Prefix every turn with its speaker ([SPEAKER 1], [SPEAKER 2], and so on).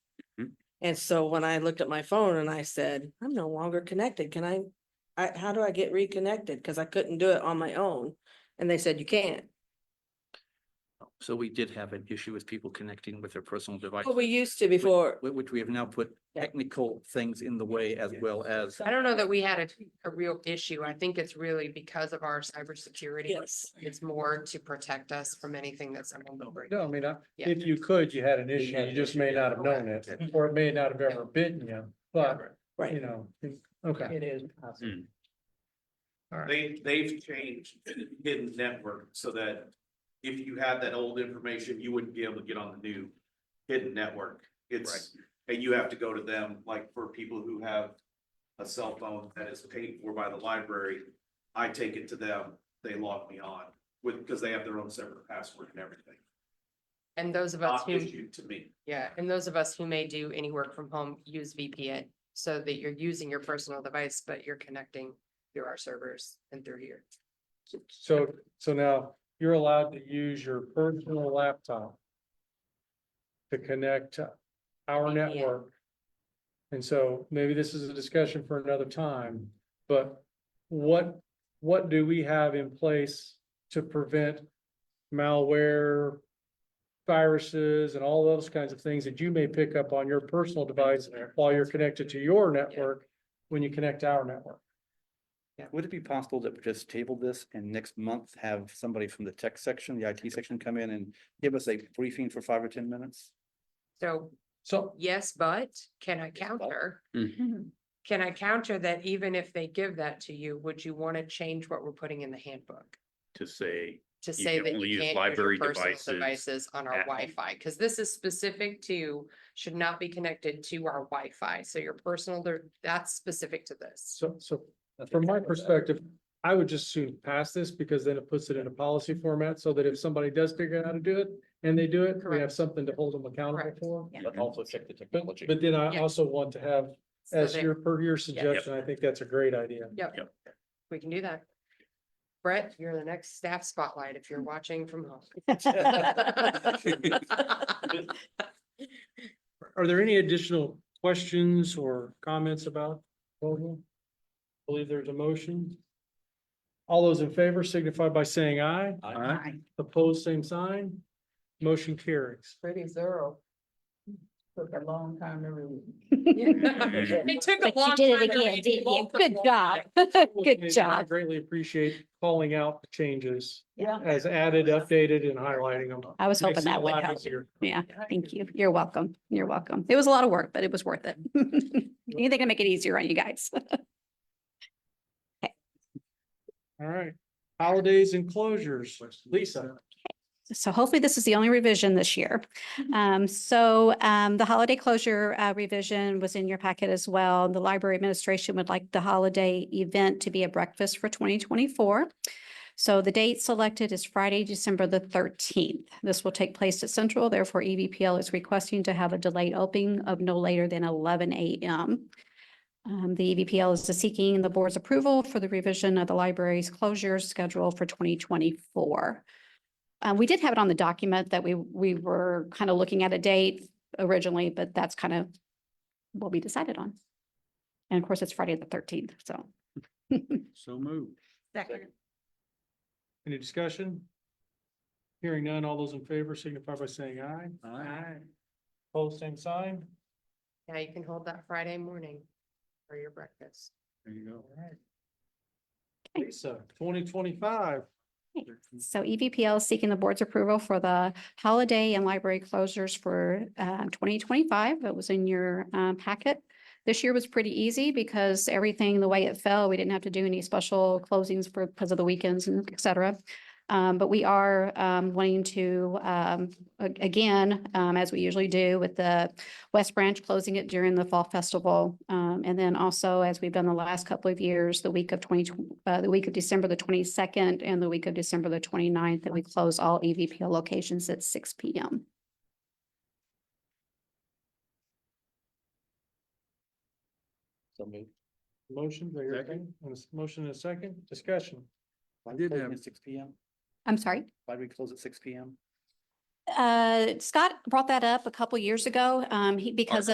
[SPEAKER 1] Hmm.
[SPEAKER 2] And so when I looked at my phone and I said, I'm no longer connected, can I, I, how do I get reconnected? Cause I couldn't do it on my own. And they said, you can't.
[SPEAKER 1] So we did have an issue with people connecting with their personal device.
[SPEAKER 2] Well, we used to before,
[SPEAKER 1] Which we have now put
[SPEAKER 2] Yeah.
[SPEAKER 1] technical things in the way as well as
[SPEAKER 3] I don't know that we had a, a real issue. I think it's really because of our cybersecurity.
[SPEAKER 2] yes.
[SPEAKER 3] It's more to protect us from anything that someone will break.
[SPEAKER 4] No, I mean, I-
[SPEAKER 3] Yeah.
[SPEAKER 4] if you could, you had an
[SPEAKER 1] You
[SPEAKER 4] issue,
[SPEAKER 1] had
[SPEAKER 4] you
[SPEAKER 1] an
[SPEAKER 4] just
[SPEAKER 1] issue,
[SPEAKER 4] may
[SPEAKER 1] yeah.
[SPEAKER 4] not have known it, or it may not have ever bitten you, but,
[SPEAKER 2] Right.
[SPEAKER 4] you know, okay.
[SPEAKER 5] It is
[SPEAKER 1] Hmm.
[SPEAKER 5] possible.
[SPEAKER 6] They, they've changed hidden network so that if you had that old information, you wouldn't be able to get on the new hidden network. It's, and you have to go to them, like for people who have a cell phone that is paid for by the library. I take it to them, they log me on with, because they have their own separate password and everything.
[SPEAKER 3] And those of us
[SPEAKER 6] Not
[SPEAKER 3] who,
[SPEAKER 6] issued to me.
[SPEAKER 3] yeah, and those of us who may do any work from home, use VPN. So that you're using your personal device, but you're connecting through our servers and through here.
[SPEAKER 4] So, so now you're allowed to use your personal laptop to connect to our
[SPEAKER 3] Yeah.
[SPEAKER 4] network. And so maybe this is a discussion for another time, but what, what do we have in place to prevent malware, viruses and all those kinds of things that you may pick up on your personal device while you're connected to your network when you connect to our network?
[SPEAKER 1] Would it be possible that we just table this and next month have somebody from the tech section, the IT section come in and give us a briefing for five or ten minutes?
[SPEAKER 3] So
[SPEAKER 4] So
[SPEAKER 3] yes, but can I
[SPEAKER 1] Yes, but. Mm-hmm.
[SPEAKER 3] counter? Can I counter that even if they give that to you, would you want to change what we're putting in the handbook?
[SPEAKER 7] to say,
[SPEAKER 3] to
[SPEAKER 7] You
[SPEAKER 3] say
[SPEAKER 7] can
[SPEAKER 3] that
[SPEAKER 7] only
[SPEAKER 3] you
[SPEAKER 7] use
[SPEAKER 3] can't use your
[SPEAKER 7] library
[SPEAKER 3] personal
[SPEAKER 7] devices
[SPEAKER 3] devices on our
[SPEAKER 7] at home.
[SPEAKER 3] Wi-Fi because this is specific to, should not be connected to our Wi-Fi. So your personal, de- that's specific to this.
[SPEAKER 4] So, so from my perspective, I would just soon pass this because then it puts it in a policy format so that if somebody does figure out how to do it and they do it, we have
[SPEAKER 3] Correct.
[SPEAKER 4] something to hold them accountable
[SPEAKER 3] Correct.
[SPEAKER 4] for.
[SPEAKER 7] but also check the
[SPEAKER 4] But,
[SPEAKER 7] technology.
[SPEAKER 4] but then I
[SPEAKER 3] Yeah.
[SPEAKER 4] also want to have,
[SPEAKER 3] So
[SPEAKER 4] as
[SPEAKER 3] there-
[SPEAKER 4] your, per your suggestion, I think that's a great idea.
[SPEAKER 3] We can do that. Brett, you're the next staff spotlight if you're watching from home.
[SPEAKER 4] Are there any additional questions or comments about Vogel? Believe there's a motion? All those in favor signify by saying aye.
[SPEAKER 5] Aye.
[SPEAKER 4] Opposed, same sign. Motion carries.
[SPEAKER 5] Pretty thorough. Took a long time to
[SPEAKER 7] Mhm.
[SPEAKER 5] read.
[SPEAKER 3] It took a
[SPEAKER 8] But you
[SPEAKER 3] long
[SPEAKER 8] did
[SPEAKER 3] time.
[SPEAKER 8] it
[SPEAKER 3] to
[SPEAKER 8] again,
[SPEAKER 3] read
[SPEAKER 8] didn't you?
[SPEAKER 3] multiple-
[SPEAKER 8] Good job.
[SPEAKER 4] And I
[SPEAKER 8] Good job.
[SPEAKER 4] Greatly appreciate calling out the changes
[SPEAKER 5] Yeah.
[SPEAKER 4] as added, updated and highlighting them.
[SPEAKER 8] I was hoping
[SPEAKER 4] Makes it a
[SPEAKER 8] that would
[SPEAKER 4] lot
[SPEAKER 8] help.
[SPEAKER 4] easier.
[SPEAKER 8] Yeah, thank you. You're welcome. You're welcome. It was a lot of work, but it was worth it. Anything to make it easier on you guys.
[SPEAKER 4] All right. Holidays and closures. Lisa.
[SPEAKER 8] So hopefully this is the only revision this year. Um, so, um, the holiday closure, uh, revision was in your packet as well. The library administration would like the holiday event to be a breakfast for twenty twenty-four. So the date selected is Friday, December the thirteenth. This will take place at Central, therefore E EVPL is requesting to have a delayed opening of no later than eleven AM. Um, the EVPL is seeking the board's approval for the revision of the library's closure schedule for twenty twenty-four. Uh, we did have it on the document that we, we were kind of looking at a date originally, but that's kind of what we decided on. And of course, it's Friday the thirteenth, so.
[SPEAKER 1] So moved.
[SPEAKER 4] Any discussion? Hearing none, all those in favor signify by saying aye. Opposed, same sign.
[SPEAKER 3] Yeah, you can hold that Friday morning for your breakfast.
[SPEAKER 1] There you go.
[SPEAKER 8] Okay.
[SPEAKER 4] Lisa, twenty twenty-five.
[SPEAKER 8] So E EVPL is seeking the board's approval for the holiday and library closures for um, twenty twenty-five. That was in your uh, packet. This year was pretty easy because everything, the way it fell, we didn't have to do any special closings for, because of the weekends and et cetera. Um, But we are um, wanting to, um, a- again, um, as we usually do with the West Branch closing it during the Fall Festival. Um, And then also, as we've done the last couple of years, the week of twenty uh, the week of December the twenty-second and the week of December the 29th, that we close all EVPL locations at six P M.
[SPEAKER 1] So moved.
[SPEAKER 4] Motion, there you go.
[SPEAKER 1] Second.
[SPEAKER 4] And this motion and a second, discussion.
[SPEAKER 1] Why
[SPEAKER 4] did
[SPEAKER 1] did
[SPEAKER 4] have-
[SPEAKER 1] at Six P M.
[SPEAKER 8] I'm sorry.
[SPEAKER 1] Why do we close at six P M?
[SPEAKER 8] Uh, Scott brought that up a couple years ago, um, he, because